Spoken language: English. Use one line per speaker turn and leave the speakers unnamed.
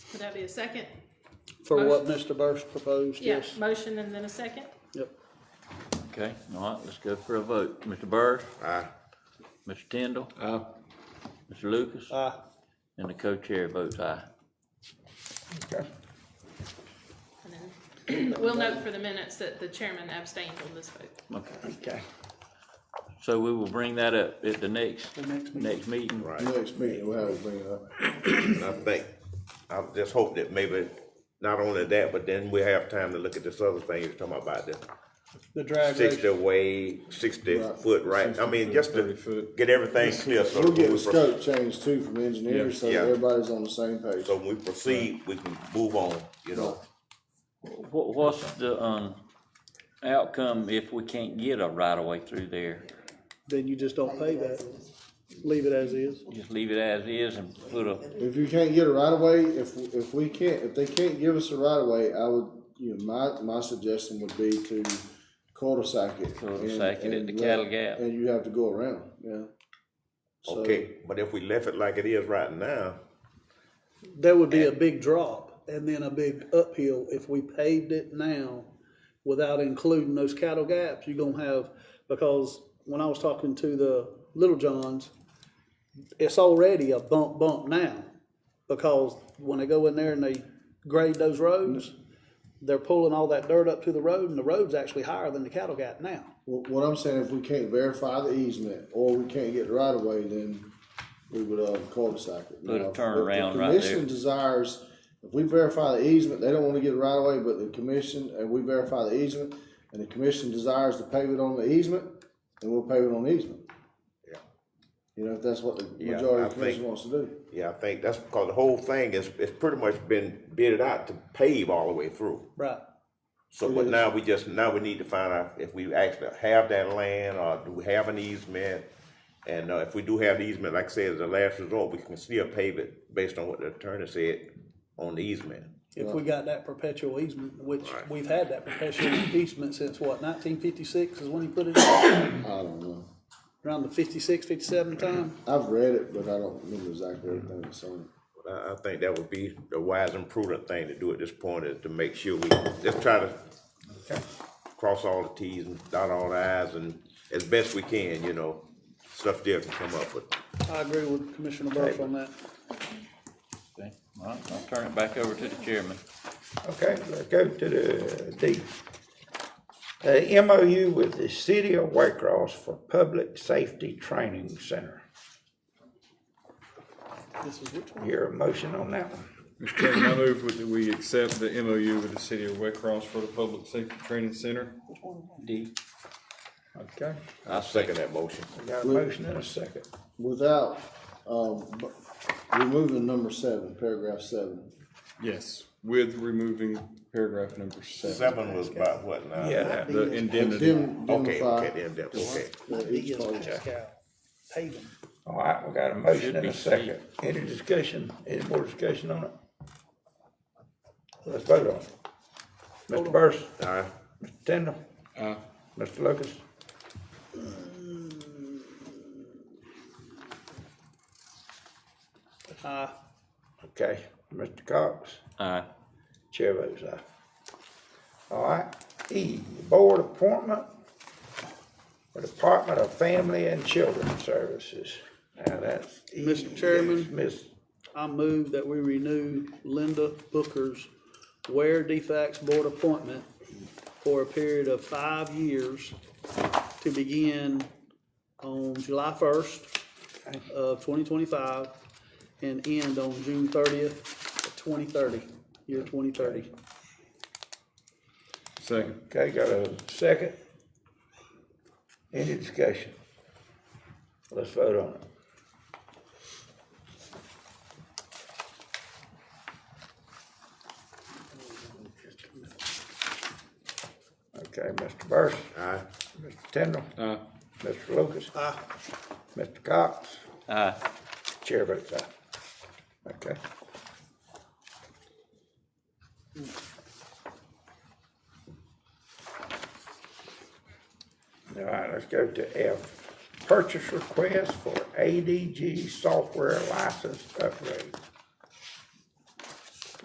Would that be a second?
For what Mr. Burst proposed,
Yeah,
yes.
motion and then a second?
Yep.
Okay, all right, let's go for a vote. Mr. Burris?
Aye.
Mr. Tindall? Aye. Mr. Lucas?
Aye.
And the co-chair votes aye.
And then We'll note for the minutes that the chairman abstained on this vote.
Okay,
Okay.
so we will bring that up at the next,
The next meeting.
next meeting.
Right.
Next meeting, we'll have to bring it up.
And I think, I just hope that maybe, not only that, but then we have time to look at this other thing you're talking about, the
The drag
sixty
ratio.
way, sixty
Right.
foot, right? I
60
mean, just
foot, 30
to
foot.
get everything clear, so.
We'll
when
get
we
the
pro-
scope changed too from engineers, so
Yeah.
that everybody's on the same page.
So when we proceed, we can move on, you know,
What, what's the, um, outcome if we can't get a right of way through there?
Then you just don't pay that. Leave it as is.
Just leave it as is and put a,
If you can't get a right of way, if, if we can't, if they can't give us a right of way, I would, you know, my, my suggestion would be to cul-de-sac it. and-
Cul-de-sac it at
and
the
let-
cattle gap.
And you have to go around, yeah. So-
okay, but if we left it like it is right now,
That would be a big drop and then a big uphill if we paved it now without including those cattle gaps, you're gonna have, because when I was talking to the Little Johns, it's already a bump bump now, because when they go in there and they grade those roads, they're pulling all that dirt up to the road and the road's actually higher than the cattle gap now.
What, what I'm saying, if we can't verify the easement or we can't get the right of way, then we would, uh, cul-de-sac it.
Put a
Now, if- if
turnaround
the
right there.
Commission desires, if we verify the easement, they don't wanna get a right of way, but the commission, and we verify the easement, and the commission desires to pave it on the easement, then we'll pave it on the easement.
Yeah.
You know, if that's what the
Yeah,
majority
I
of the commission
think-
wants to do.
yeah, I think that's because the whole thing is, it's pretty much been bidded out to pave all the way through.
Right.
So, but now we just, now we need to find out if we actually have that land or do we have an easement? And uh, if we do have the easement, like I said, as a last resort, we can still pave it based on what the attorney said on the easement.
If we got that perpetual easement, which we've had that perpetual easement since what, nineteen fifty-six is when he put it in?
I don't know.
Around the 56, 57 time?
I've read it, but I don't remember exactly everything that's on it.
But I, I think that would be the wise and prudent thing to do at this point is to make sure we, just try to cross all the Ts and dot all the Is and as best we can, you know, stuff still can come up with.
I agree with Commissioner Burke on that.
okay, all right, I'll turn it back over to the chairman.
Okay, let's go to the D. Uh, MOU with the City of Waycross for Public Safety Training Center.
This is which one?
Your motion on that one?
Mr. Chairman, I move that we accept the MOU with the city of Wet Cross for the Public Safety Training Center.
D.
Okay,
I second that motion.
we got a motion and a second.
Without, um, bu- removing number seven, paragraph seven.
Yes. With removing paragraph number seven,
Seven was about what now?
Yeah, that-
the indemnity.
Indem-
Okay,
Indemnify.
okay, then, that- okay.
Yeah, each part.
Paving.
all right, we got a motion and
be
a second. Any discussion, any more discussion on it? Let's vote on it. Mr. Burris,
All right.
Mr. Tindall,
Aye.
Mr. Lucas,
Uh,
okay, Mr. Cox.
Aye.
Chair votes aye. All right, E, board appointment for Department of Family and Children Services. Now that's. E.
Mr. Chairman.
Miss,
I move that we renew Linda Booker's Ware Defacts Board appointment for a period of five years to begin on July first of twenty twenty-five and end on June thirtieth, twenty thirty, year twenty thirty.
Second.
okay, got a second? Any discussion? Let's vote on it. Okay, Mr. Burris,
All right.
Mr. Tindall.
Aye.
Mr. Lucas? Aye. Mr. Cox?
Aye.
Chair votes aye. Okay. All right, let's go to F. Purchase request for ADG software license upgrade.